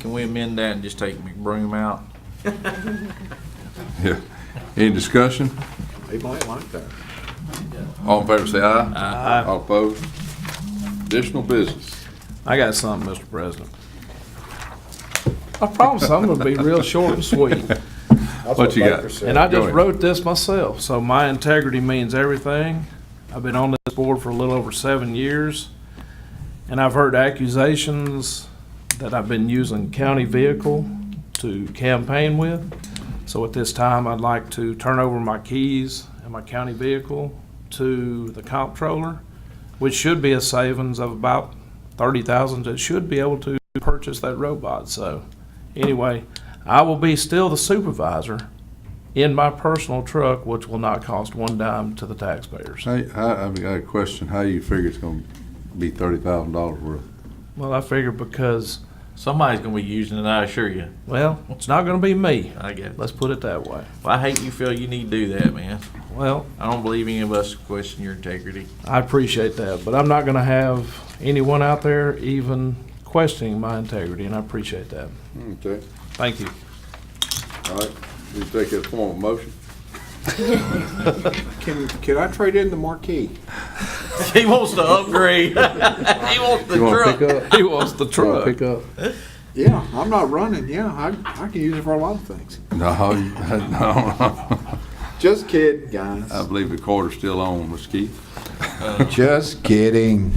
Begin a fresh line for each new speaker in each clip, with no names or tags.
Can we amend that and just take McBroom out?
Yeah. Any discussion?
They might like that.
All in favor, say aye. Aye. All opposed? Additional business.
I got something, Mr. President. I promise I'm gonna be real short and sweet.
That's
What you got?
Baker said.
And I
Go
just
ahead.
wrote this myself, so my integrity means everything. I've been on this board for a little over seven years, and I've heard accusations that I've been using county vehicle to campaign with. So at this time, I'd like to turn over my keys and my county vehicle to the comptroller, which should be a savings of about thirty thousand that should be able to purchase that robot. So anyway, I will be still the supervisor, in my personal truck, which will not cost one dime to the taxpayers.
Hey, I, I got a question. How you figure it's gonna be thirty thousand dollars worth?
Well, I figure because,
Somebody's gonna be using it, I assure you.
well, it's not going to be me.
I get it.
Let's put it that way.
Well, I hate you feel you need to do that, man.
Well,
I don't believe any of us question your integrity.
I appreciate that, but I'm not going to have anyone out there even questioning my integrity, and I appreciate that.
Okay,
Thank you.
all right. We take it as a form of motion.
Can, can I trade in the marquee?
He wants to upgrade. He wants the
You wanna pick
truck.
up?
He wants the
Wanna
truck.
Pick up?
Yeah, I'm not running, yeah, I, I can use it for a lot of things.
No, you- no,
Just kidding, guys.
I believe the quarter's still on, Mr. Keith.
Just kidding.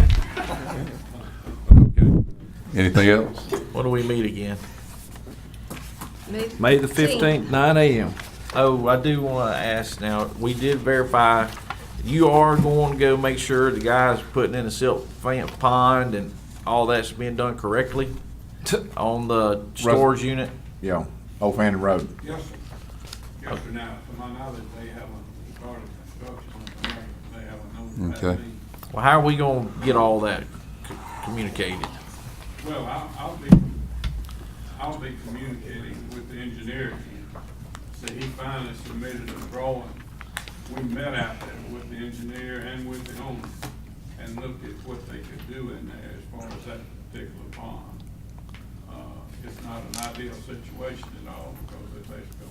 Okay. Anything else?
When do we meet again?
May the 15th, nine AM.
Oh, I do wanna ask now, we did verify, you are going to go make sure the guy's putting in a silt fan pond and all that's being done correctly on the storage unit?
Yeah, Old Fannin Road.
Yes, sir. Yes, sir. Now, to my knowledge, they haven't started construction on the matter. They haven't notified
Okay.
me.
Well, how are we gonna get all that c- communicated?
Well, I'll, I'll be, I'll be communicating with the engineer again. So he finally submitted a drawing. We met out there with the engineer and with the owner and looked at what they could do in there as far as that particular pond. Uh, It's not an ideal situation at all because they're basically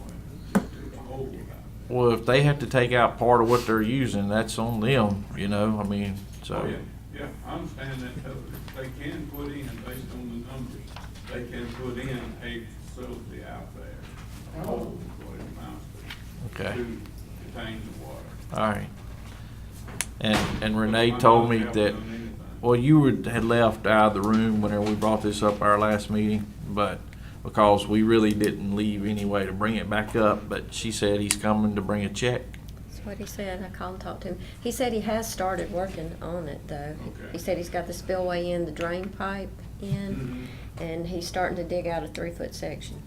going to do the whole out there.
Well, if they have to take out part of what they're using, that's on them, you know, I mean,
Oh,
so.
yeah, yeah, I understand that totally. They can put in, based on the numbers, they can put in a facility out there, a hole, what it amounts to,
Okay.
to contain the water.
All right. And, and
But
Renee
my
told me
knowledge, they
that,
haven't done anything.
well, you would, had left out of the room whenever we brought this up our last meeting, but because we really didn't leave any way to bring it back up, but she said he's coming to bring a check.
That's what he said. I called and talked to him. He said he has started working on it, though.
Okay.
He said he's got the spillway in, the drain pipe in,
Mm-hmm.
and he's starting to dig out a three-foot section.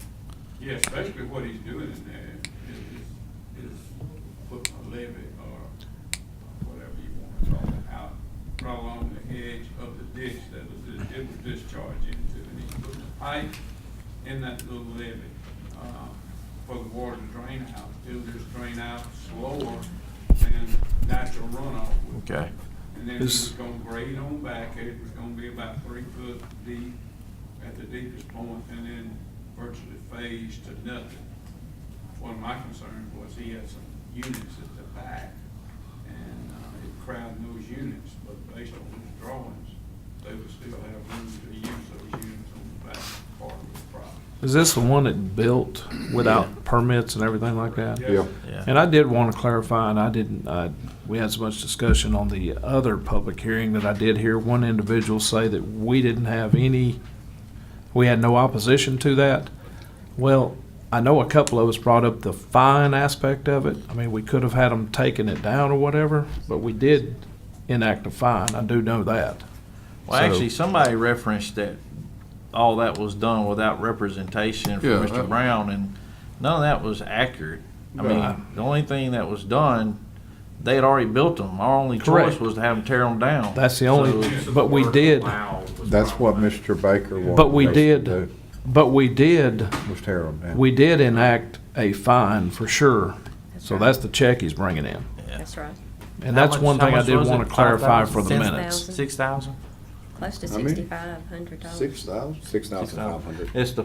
Yes, basically what he's doing in there is, is, is putting a levee or whatever you want to call it out, right along the edge of the ditch that was, it would discharge into. And he's putting a pipe in that little levee, uh, for the water to drain out. It'll just drain out slower than natural runoff would.
Okay.
And then
Is-
it's gonna grade on back, it was gonna be about three foot deep at the deepest point, and then virtually phase to nothing. One of my concerns was he had some units at the back, and, uh, it crowded those units, but based on his drawings, they would still have room to use those units on the back part of the property.
Is this the one that built without permits and everything like that?
Yeah.
Yeah.
And I did want to clarify, and I didn't, I, we had so much discussion on the other public hearing that I did hear one individual say that we didn't have any, we had no opposition to that. Well, I know a couple of us brought up the fine aspect of it. I mean, we could have had them taking it down or whatever, but we did enact a fine. I do know that.
Well,
So-
actually, somebody referenced that all that was done without representation from
Yeah,
Mr.
uh,
that-
Brown, and none of that was accurate. I
Right.
mean, the only thing that was done, they had already built them. Our only choice
Correct.
was to have them tear them down.
That's the only, but we did,
That's what Mr. Baker wanted.
but we
us to
did,
do,
but we did
Was tear 'em down.
We did enact a fine for sure, so
right.
that's the check he's bringing in.
That's right.
And
How
that's
much-
one
how
thing I
much
did
was
want
it?
to clarify
5,000?
for the
10,000?
minutes.
Six thousand?
Close to
How many?
sixty-five hundred dollars.
Six thousand? Six thousand five hundred.
It's the